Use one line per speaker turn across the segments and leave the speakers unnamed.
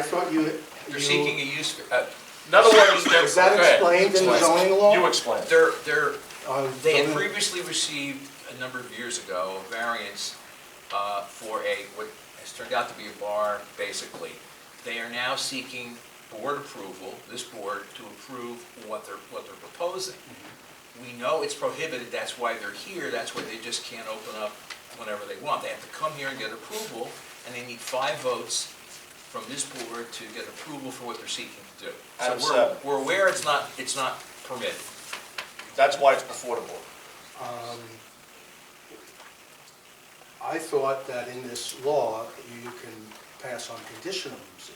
I thought you,
They're seeking
you,
a use, uh,
In other words, they're.
is that
go ahead.
explained in the
Explain.
zoning law?
You explain.
they're, they're,
Uh,
they had
zoning-
previously received a number of years ago a variance uh, for a, what has turned out to be a bar, basically. They are now seeking board approval, this board, to approve what they're, what they're proposing. We know it's prohibited, that's why they're here, that's why they just can't open up whenever they want. They have to come here and get approval, and they need five votes from this board to get approval for what they're seeking to do.
Out
So
of
we're,
seven.
we're aware it's not, it's not permitted.
That's why it's before the board.
um, I thought that in this law, you can pass on conditional uses,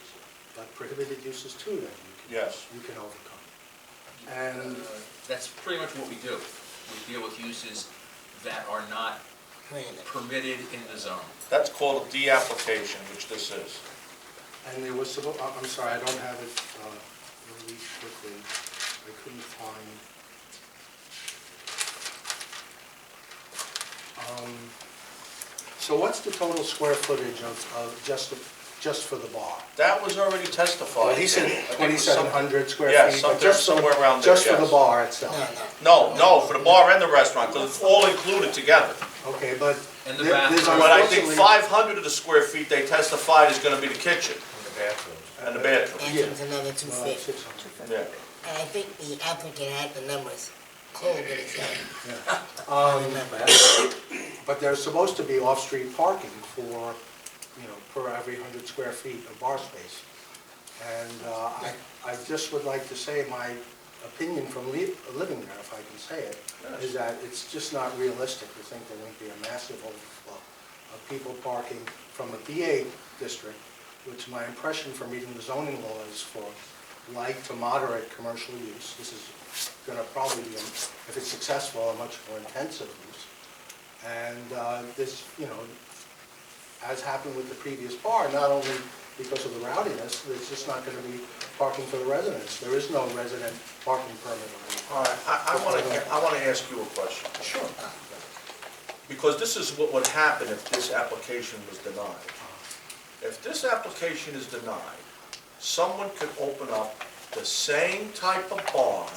but prohibited uses too, then you can,
Yes.
you can overcome. And
That's pretty much what we do. We deal with uses that are not permitted in the zone.
That's called a de-application, which this is.
And there was, suppo- I- I'm sorry, I don't have it uh, really quickly. I couldn't find. Um, So what's the total square footage of, of just, the- just for the bar?
That was already testified.
Well, he said
Oh, I think it was some-
2,700 square feet.
Yeah,
but
something
just so-
somewhere around there,
Just for the
yes.
bar itself?
No, no, for the bar and the restaurant, because it's all included together.
Okay, but.
And the
there- there's uh,
bathroom.
But I think
unfortunately-
500 of the square feet they testified is going to be the kitchen and the bathroom.
Entrance another two
Well, that's
fifty.
600.
Yeah.
And I think the applicant had the numbers cold with his head.
Yeah.
I
Um,
remember.
But there's supposed to be off-street parking for, you know, per every 100 square feet of bar space. And uh, I, I just would like to say my opinion from li- living there, if I can say it, is that it's just not realistic to think there wouldn't be a massive overflow of people parking from a BA district, which my impression from reading the zoning law is for light to moderate commercial use. This is going to probably be, if it's successful, a much more intensive use. And uh, this, you know, as happened with the previous bar, not only because of the rowdiness, there's just not going to be parking for the residents. There is no resident parking permit.
All right, I want to, I want to ask you a question.
Sure.
Because this is what would happen if this application was denied. If this application is denied, someone could open up the same type of bar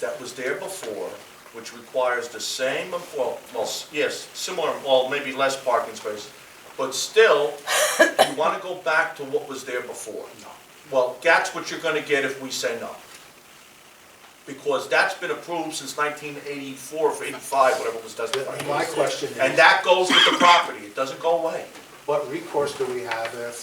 that was there before, which requires the same, well, well, yes, similar, well, maybe less parking spaces, but still, you want to go back to what was there before. Well, that's what you're going to get if we say no. Because that's been approved since 1984 or 85, whatever was testified.
My question is.
And that goes with the property, it doesn't go away.
What recourse do we have if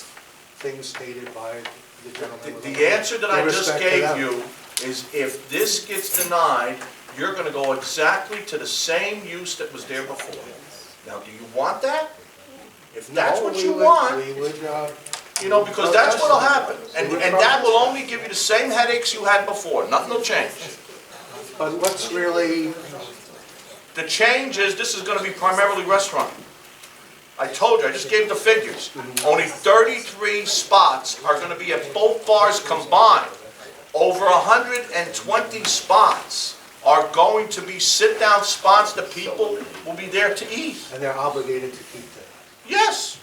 things stated by the
The-
gentleman? with
The answer that I just
respect to
gave
them?
you is if this gets denied, you're gonna go exactly to the same use that was there before. Now, do you want that? If that's
No,
what
we
you
would-
want,
We would, uh,
you know, because that's what'll happen. And,
We would
and that will
protest.
only give you the same headaches you had before, nothing will change.
but what's really,
The change is, this is gonna be primarily restaurant. I told you, I just gave the figures. Only thirty-three spots are gonna be at both bars combined. Over hundred and twenty spots are going to be sit-down spots that people will be there to eat.
and they're obligated to keep that.
Yes,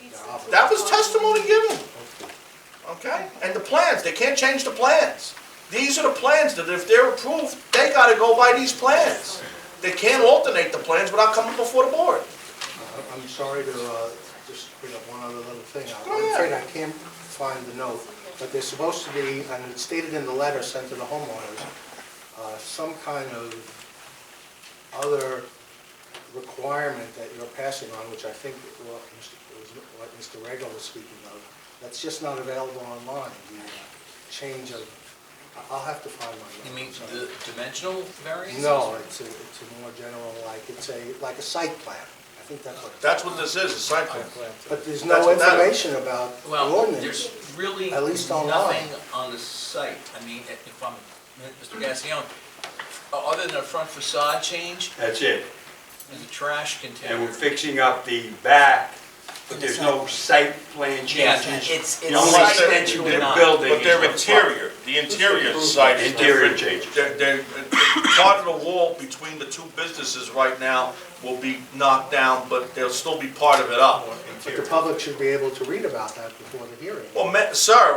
They're obligated.
that was testimony given, okay? And the plans, they can't change the plans. These are the plans that if they're approved, they gotta go by these plans. They can't alternate the plans without coming before the board.
I- I'm sorry to uh, just bring up one other little thing. I'm
Go ahead.
afraid I can't find the note, but there's supposed to be, and it's stated in the letter sent to the homeowners, uh, some kind of other requirement that you're passing on, which I think well, Mr. was what Mr. Regal was speaking of, that's just not available online, the uh, change of, I- I'll have to find my note.
You mean
I'm sorry.
the dimensional variances?
No, it's a, it's a more general, like, it's a, like a site plan. I think that's what.
That's what this is, a site plan.
But there's
That's
no
what that-
information about the
Well, there's
ordinance.
really
At least online.
nothing on the site. I mean, if I'm, Mr. Gassion, other than a front facade change,
That's it.
there's a trash
And
container.
we're fixing up the back, but there's no site plan
Yeah,
changes.
it's-
The
it's
only
site
extension to the
plan.
building
But
is
their
the front.
interior,
The interior side is
Interior
different.
changes.
They're, they're, part of the wall between the two businesses right now will be knocked down, but there'll still be part of it up.
But the public should be able to read about that before the hearing.
Well, ma- sir,